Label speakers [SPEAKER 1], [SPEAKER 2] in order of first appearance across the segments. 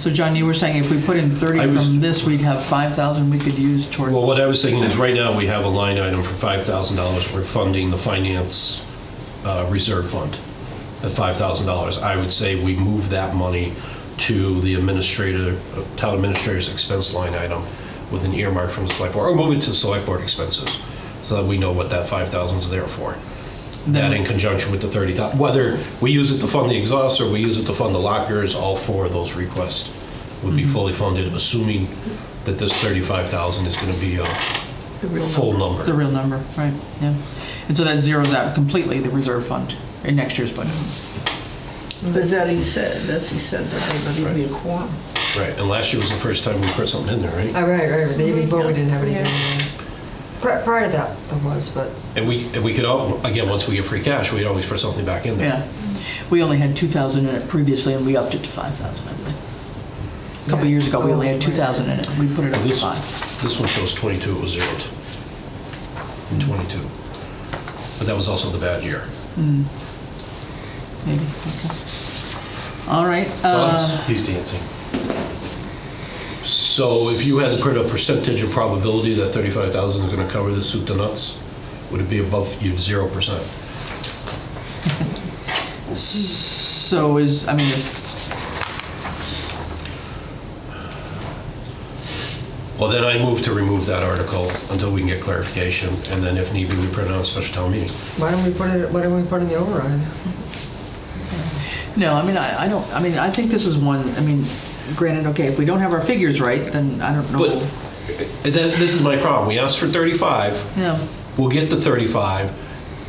[SPEAKER 1] So John, you were saying if we put in
[SPEAKER 2] I
[SPEAKER 1] 30
[SPEAKER 2] was-
[SPEAKER 1] from this, we'd have 5,000 we could use toward,
[SPEAKER 2] Well, what I was thinking is, right now, we have a line item for $5,000. We're funding the finance uh, reserve fund at $5,000. I would say we move that money to the administrator, uh, town administrator's expense line item with an earmark from the select board, or move it to the select board expenses, so that we know what that $5,000 is there for. That in conjunction with the 30,000, whether we use it to fund the exhaust or we use it to fund the lockers, all four of those requests would
[SPEAKER 1] Mm-hmm.
[SPEAKER 2] be fully funded, assuming that this 35,000 is going to be a
[SPEAKER 1] the real
[SPEAKER 2] full
[SPEAKER 1] number. The
[SPEAKER 2] number.
[SPEAKER 1] real number, right, yeah. And so that zeroes out completely the reserve fund in next year's budget.
[SPEAKER 3] But that he said, that's he said, that they would be a quorum.
[SPEAKER 2] Right, and last year was the first time we put something in there, right?
[SPEAKER 4] Oh, right, right, the year
[SPEAKER 1] Mm-hmm.
[SPEAKER 4] before, we didn't have anything. in there. Pri- Prior to that, there was, but,
[SPEAKER 2] And we, and we could, all again, once we get free cash, we'd always put something back in there.
[SPEAKER 1] Yeah. We only had 2,000 in it previously, and we upped it to 5,000, I believe. A couple
[SPEAKER 4] Yeah.
[SPEAKER 1] years ago, we only had
[SPEAKER 4] Oh, right.
[SPEAKER 1] 2,000 in it, we put it up to
[SPEAKER 2] This,
[SPEAKER 1] 5.
[SPEAKER 2] this one shows 22, it was zeroed in 22. But that was also the bad year.
[SPEAKER 1] Maybe, okay. All right. uh,
[SPEAKER 2] Thoughts? He's dancing. So if you had to put a percentage of probability that 35,000 is going to cover the soup to nuts, would it be above you 0%?
[SPEAKER 1] So is, I mean, if-
[SPEAKER 2] Well, then I move to remove that article until we can get clarification, and then if need be, we print it on a special town meeting.
[SPEAKER 4] why don't we put it, why don't we put in the override?
[SPEAKER 1] no, I mean, I I don't, I mean, I think this is one, I mean, granted, okay, if we don't have our figures right, then I don't
[SPEAKER 2] But uh,
[SPEAKER 1] know.
[SPEAKER 2] then, this is my problem, we asked for 35,
[SPEAKER 1] Yeah,
[SPEAKER 2] we'll get the 35,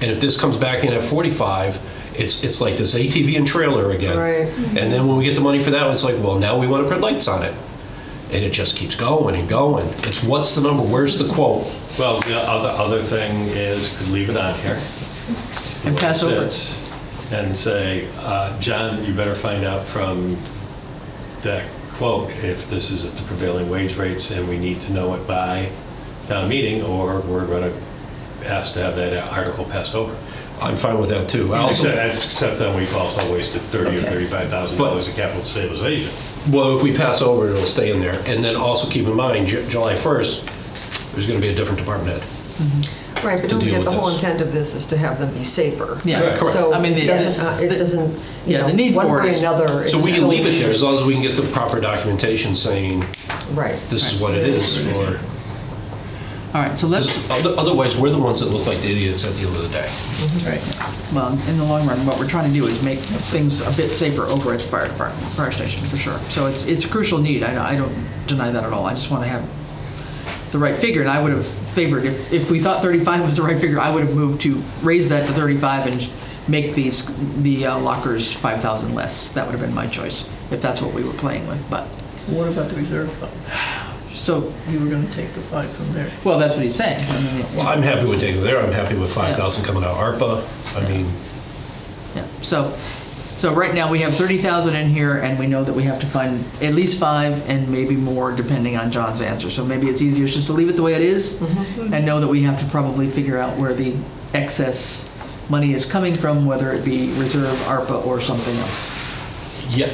[SPEAKER 2] and if this comes back in at 45, it's, it's like this ATV and trailer again.
[SPEAKER 4] Right.
[SPEAKER 2] Mm-hmm. And then when we get the money for that, it's like, well, now we want to put lights on it. And it just keeps going and going. It's what's the number, where's the quote?
[SPEAKER 5] Well, the other, other thing is, could leave it on here.
[SPEAKER 1] and pass
[SPEAKER 5] Like
[SPEAKER 1] over.
[SPEAKER 5] this, And say, uh, John, you better find out from that quote if this is at the prevailing wage rates and we need to know it by town meeting or we're going to ask to have that article passed over.
[SPEAKER 2] I'm fine with that too. I also-
[SPEAKER 5] Except except then we've also wasted 30 or
[SPEAKER 1] Okay.
[SPEAKER 5] 35,000 dollars of capital stabilization.
[SPEAKER 2] Well, if we pass over, it'll stay in there. And then also keep in mind, Ju- July 1st, there's going to be a different department head.
[SPEAKER 4] Right, but
[SPEAKER 2] deal
[SPEAKER 4] don't forget,
[SPEAKER 2] with
[SPEAKER 4] the whole
[SPEAKER 2] this.
[SPEAKER 4] intent of this is to have them be safer.
[SPEAKER 1] Yeah,
[SPEAKER 2] Correct.
[SPEAKER 4] So
[SPEAKER 1] I mean,
[SPEAKER 4] it
[SPEAKER 1] the-
[SPEAKER 4] doesn't, uh,
[SPEAKER 1] the-
[SPEAKER 4] it doesn't, you
[SPEAKER 1] yeah, the
[SPEAKER 4] know,
[SPEAKER 1] need
[SPEAKER 4] one
[SPEAKER 1] for it
[SPEAKER 4] way or
[SPEAKER 1] is-
[SPEAKER 4] another.
[SPEAKER 2] So
[SPEAKER 4] it's
[SPEAKER 2] we can
[SPEAKER 4] still-
[SPEAKER 2] leave it there as long as we can get the proper documentation saying
[SPEAKER 4] Right.
[SPEAKER 2] this is what it is. or-
[SPEAKER 1] All right, so let's,
[SPEAKER 2] Because other- Otherwise, we're the ones that look like the idiots at the end of the day.
[SPEAKER 1] well, in the long run, what we're trying to do is make things a bit safer over at the fire department, fire station, for sure. So it's, it's a crucial need, I, I don't deny that at all, I just want to have the right figure, and I would have favored, if, if we thought 35 was the right figure, I would have moved to raise that to 35 and make these, the uh, lockers 5,000 less. That would have been my choice, if that's what we were playing with, but,
[SPEAKER 3] What about the reserve fund?
[SPEAKER 1] so,
[SPEAKER 3] You were gonna take the five from there.
[SPEAKER 1] well, that's what he's saying. I mean, it-
[SPEAKER 2] Well, I'm happy with taking it there. I'm happy with 5,000 coming out of ARPA. I mean,
[SPEAKER 1] Yeah, so, so right now, we have 30,000 in here, and we know that we have to find at least five, and maybe more, depending on John's answer. So maybe it's easier just to leave it the way it is,
[SPEAKER 4] Mm-hmm.
[SPEAKER 1] and know that we have to probably figure out where the excess money is coming from, whether it be reserve, ARPA, or something else.
[SPEAKER 2] yeah,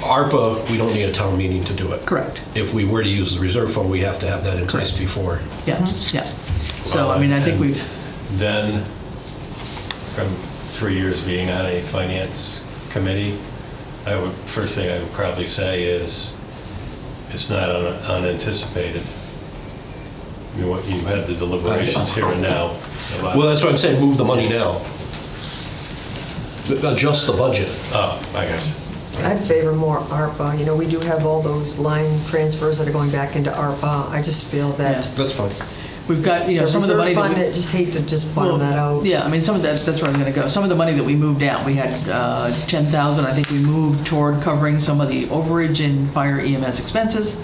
[SPEAKER 2] ARPA, we don't need a town meeting to do it.
[SPEAKER 1] Correct.
[SPEAKER 2] If we were to use the reserve fund, we have to have that in place before.
[SPEAKER 1] Yeah,
[SPEAKER 4] Mm-hmm.
[SPEAKER 1] yeah. So, I mean, I think we've,
[SPEAKER 5] Then, from three years being on a finance committee, I would, first thing I would probably say is, it's not un- unanticipated. You know, you had the deliberations here and now. about-
[SPEAKER 2] Well, that's what I'm saying, move the money now. Adjust the budget.
[SPEAKER 5] Oh, I got you.
[SPEAKER 4] I'd favor more ARPA. You know, we do have all those line transfers that are going back into ARPA. I just feel that
[SPEAKER 1] Yeah.
[SPEAKER 2] That's fine.
[SPEAKER 1] we've got, you
[SPEAKER 4] the
[SPEAKER 1] know, some of the money
[SPEAKER 4] reserve
[SPEAKER 1] that we...
[SPEAKER 4] fund, I just hate to just bottom
[SPEAKER 1] Well,
[SPEAKER 4] that out.
[SPEAKER 1] Yeah, I mean, some of that, that's where I'm gonna go. Some of the money that we moved out, we had uh, 10,000, I think we moved toward covering some of the overage in fire EMS expenses.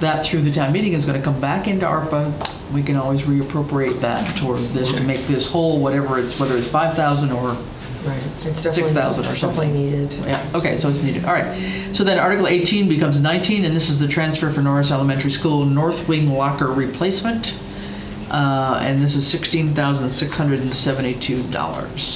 [SPEAKER 1] That through the town meeting is gonna come back into ARPA. We can always reappropriate that toward this to make this whole, whatever it's, whether it's 5,000 or,
[SPEAKER 4] Right. It's definitely
[SPEAKER 1] 6,000 or something.
[SPEAKER 4] Definitely needed.
[SPEAKER 1] yeah, okay, so it's needed, all right. So then Article 18 becomes 19, and this is the transfer for Norris Elementary School North Wing Locker Replacement. Uh, And this is $16,672.